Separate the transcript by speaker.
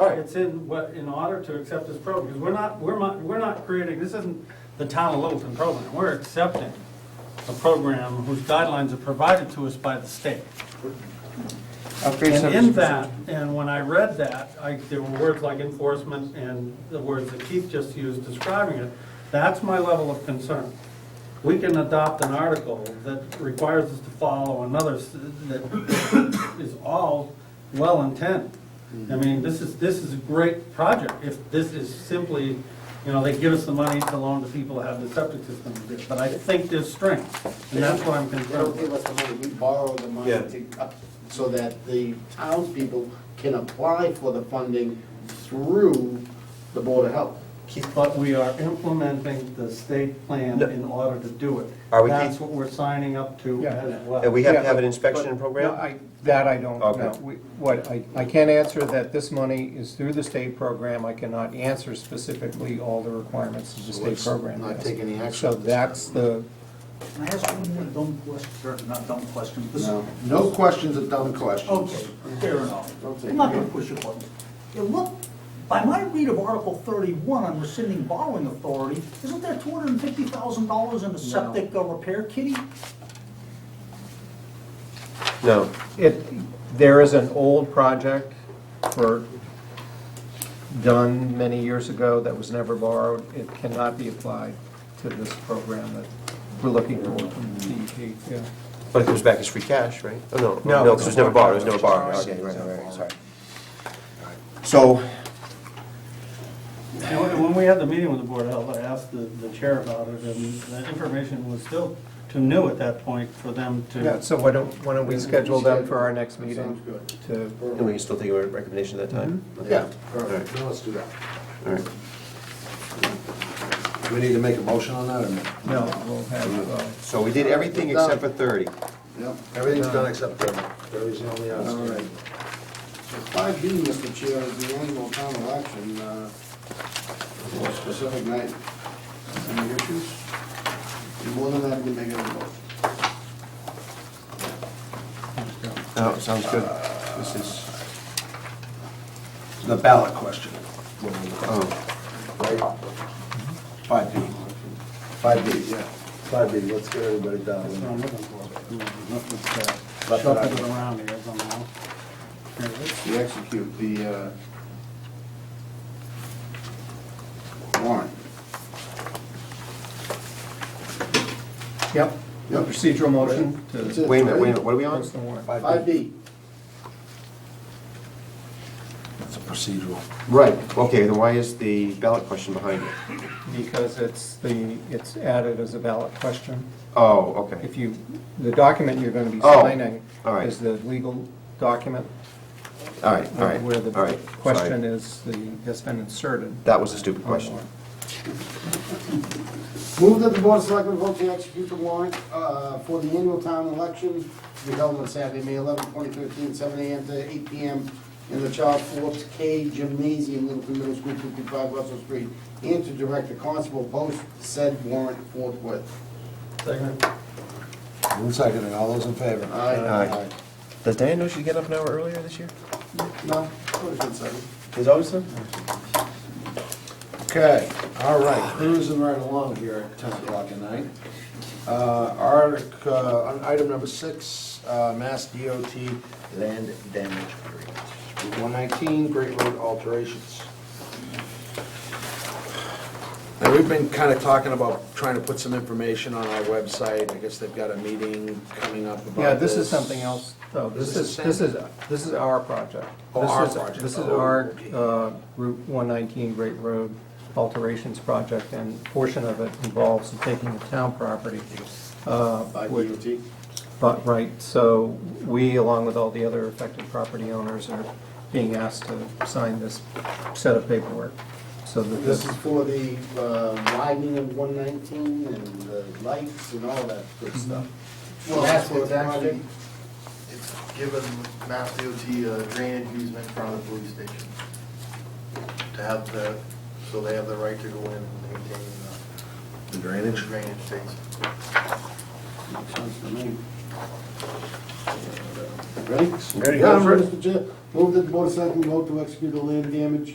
Speaker 1: It's in, what, in order to accept this program, because we're not, we're not, we're not creating, this isn't the town of Littleton program. We're accepting a program whose guidelines are provided to us by the state.
Speaker 2: Upgrade
Speaker 1: And in
Speaker 2: services.
Speaker 1: that, and when I read that, I, there were words like enforcement and the words that Keith just used describing it. That's my level of concern. We can adopt an article that requires us to follow another s- that is all well intent. I mean, this is, this is a great project. If this is simply, you know, they give us the money to loan to people that have the septic system. But I think there's strength, and that's what I'm
Speaker 3: They
Speaker 1: concerned
Speaker 3: don't
Speaker 1: with.
Speaker 3: give us the money, we borrow the money
Speaker 4: Yeah.
Speaker 3: to, up- so that the townspeople can apply for the funding through the Board of Health.
Speaker 1: But we are implementing the state plan in order to do it.
Speaker 4: Are we-
Speaker 1: That's what we're signing up to
Speaker 5: Yeah.
Speaker 1: as
Speaker 4: And
Speaker 1: well.
Speaker 4: Uh, we have to
Speaker 5: Yeah,
Speaker 4: have an
Speaker 5: but-
Speaker 4: inspection
Speaker 5: No,
Speaker 4: program?
Speaker 5: I- That I don't
Speaker 4: Okay.
Speaker 5: know. We- What, I, I can't answer that this money is through the state program. I cannot answer specifically all the requirements of the
Speaker 3: So
Speaker 5: state
Speaker 3: let's
Speaker 5: program.
Speaker 3: not
Speaker 5: yes.
Speaker 3: take any action
Speaker 5: So
Speaker 3: at this
Speaker 5: that's the,
Speaker 6: Can I ask one more dumb question, or not dumb question? this-
Speaker 3: No, Oh, no questions are dumb questions.
Speaker 6: Okay, fair enough.
Speaker 3: Don't say-
Speaker 6: I'm not gonna push your buttons. It look, by my read of Article thirty-one on rescinding borrowing authority, isn't there two hundred and fifty thousand dollars in the septic uh, repair kitty?
Speaker 4: No.
Speaker 5: it, there is an old project for, done many years ago that was never borrowed. It cannot be applied to this program that we're looking for from E DEP. Yeah.
Speaker 4: But it comes back as free cash, right? Oh, no,
Speaker 5: No.
Speaker 4: no, because it was never borrowed, it was never borrowed. Okay, right, right, right, sorry. So,
Speaker 1: And when- when we had the meeting with the Board of Health, I asked the, the chair about it, and the information was still too new at that point for them
Speaker 5: Yeah,
Speaker 1: to.
Speaker 5: so why don't, why don't we schedule them for our next meeting?
Speaker 3: Sounds good.
Speaker 5: To
Speaker 4: and we can still Mm-hmm. take a recommendation at that time?
Speaker 3: Yeah,
Speaker 4: All right,
Speaker 3: perfect, now let's do that.
Speaker 4: all right.
Speaker 3: Do we need to make a motion on that or no?
Speaker 5: No, we'll have, uh,
Speaker 4: So we did everything except for 30.
Speaker 3: Yep, everything's done except thirty. Thirty's the only outstanding. Five B, Mr. Chair, is the annual town election, uh, for a specific night. Any issues? You're more than happy to make it a vote.
Speaker 4: No, sounds good. This is,
Speaker 3: The ballot question.
Speaker 4: oh,
Speaker 3: Five B. Five B, yeah. Five B, let's get everybody down.
Speaker 1: That's what I'm looking for.
Speaker 3: Left it
Speaker 1: Shuffle it
Speaker 3: out.
Speaker 1: around here somehow. Here it is.
Speaker 3: We execute the, uh, warrant.
Speaker 5: yep,
Speaker 3: Yep.
Speaker 5: procedural motion
Speaker 3: That's
Speaker 5: to
Speaker 3: it.
Speaker 4: wait a minute, wait a minute, what are we on?
Speaker 5: post the warrant.
Speaker 3: Five B. That's a procedural.
Speaker 4: Right, okay, then why is the ballot question behind it?
Speaker 5: Because it's the, it's added as a ballot question.
Speaker 4: Oh, okay.
Speaker 5: If you, the document you're gonna be
Speaker 4: Oh,
Speaker 5: signing
Speaker 4: all right.
Speaker 5: is the legal document
Speaker 4: All right, all right,
Speaker 5: where the
Speaker 4: all right.
Speaker 5: question
Speaker 4: sorry.
Speaker 5: is, the, has been inserted.
Speaker 4: That was a stupid question.
Speaker 3: Move that the Board of Selectmen vote to execute the warrant uh, for the annual town election to be held on Saturday, May 11, 2013, 7 a.m. to 8 p.m. in the Charles Forbes K Gymnasium, Littleton Middle School, 255 Russell Street, and to direct the constable post said warrant forthwith.
Speaker 1: Second.
Speaker 7: One second, and all those in favor?
Speaker 4: Aye. Does Diane know she'd get up an hour earlier this year?
Speaker 3: No, put it in second.
Speaker 4: There's always some.
Speaker 7: Okay, all right, cruising right along here at 10 o'clock at night. Uh, Artic, uh, on item number six, uh, Mass DOT land damage grant. Route 119, Great Road alterations. Now, we've been kind of talking about trying to put some information on our website. I guess they've got a meeting coming up about this.
Speaker 5: Yeah, this is something else, though.
Speaker 7: This
Speaker 5: This
Speaker 7: is
Speaker 5: is, this
Speaker 7: same.
Speaker 5: is, this is our project.
Speaker 7: Oh,
Speaker 5: This
Speaker 7: our
Speaker 5: is-
Speaker 7: project.
Speaker 5: This is
Speaker 7: Oh,
Speaker 5: our
Speaker 7: okay.
Speaker 5: uh, Route 119 Great Road alterations project, and a portion of it involves taking the town property. uh,
Speaker 3: By
Speaker 5: which-
Speaker 3: DOT.
Speaker 5: But, right, so we, along with all the other affected property owners, are being asked to sign this set of paperwork, so that
Speaker 3: This
Speaker 5: this,
Speaker 3: is for the uh, widening of 119 and the lights and all that good stuff.
Speaker 8: Well,
Speaker 3: That's
Speaker 8: that's
Speaker 3: what
Speaker 8: what's actually,
Speaker 3: project-
Speaker 8: it's given Mass DOT a uh, drainage easement in front of the police station. To have the, so they have the right to go in and maintain uh,
Speaker 7: The
Speaker 8: the
Speaker 7: drainage.
Speaker 8: drainage things.
Speaker 3: Makes sense to me. Ready?
Speaker 7: Ready to go,
Speaker 3: Yeah, I'm
Speaker 7: sir.
Speaker 3: Mr. Chair. Move that the Board of Selectmen vote to execute the land damage